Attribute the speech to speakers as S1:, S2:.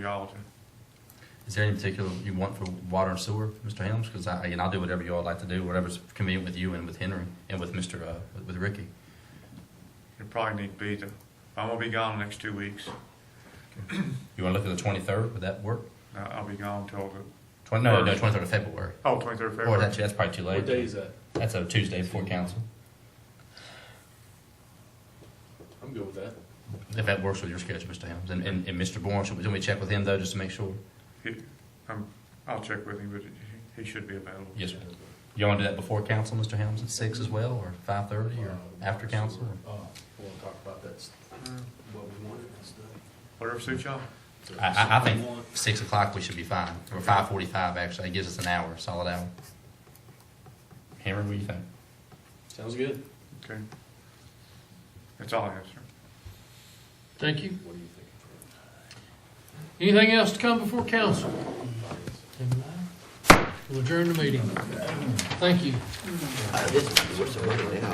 S1: Y'all,
S2: Is there any particular you want for water and sewer, Mr. Helms? Because I, and I'll do whatever you all like to do, whatever's convenient with you and with Henry and with Mr., uh, with- with Ricky.
S1: it probably need to be the, I'm gonna be gone the next two weeks.
S2: You want to look at the twenty-third, would that work?
S1: I- I'll be gone till the,
S2: Twenty, no, no, twenty-third of February.
S1: oh, twenty-third of
S2: Or
S1: February.
S2: that's, that's probably too
S3: What day
S2: late.
S3: is that?
S2: That's a Tuesday before council,
S3: I'm good with that.
S2: if that works with your schedule, Mr. Helms. And, and, and Mr. Bourne, should we, should we check with him though, just to make sure?
S1: He- I'm, I'll check with him, but he- he should be available.
S2: Yes, sir. You want to do that before council, Mr. Helms, at six as well, or five-thirty, or after council? or-
S3: Um, Uh, we'll talk about that, s- what we want and stuff.
S1: Whatever suits y'all.
S2: I, I, I think six o'clock, we should be fine, or five forty-five, actually, it gives us an hour, solid hour. Henry, what do you think?
S3: Sounds good.
S1: Okay. That's all I have, sir.
S4: Thank you.
S3: What do you think?
S4: Anything else to come before council? We'll adjourn the meeting. Thank you.
S5: Uh, this, what's the right now?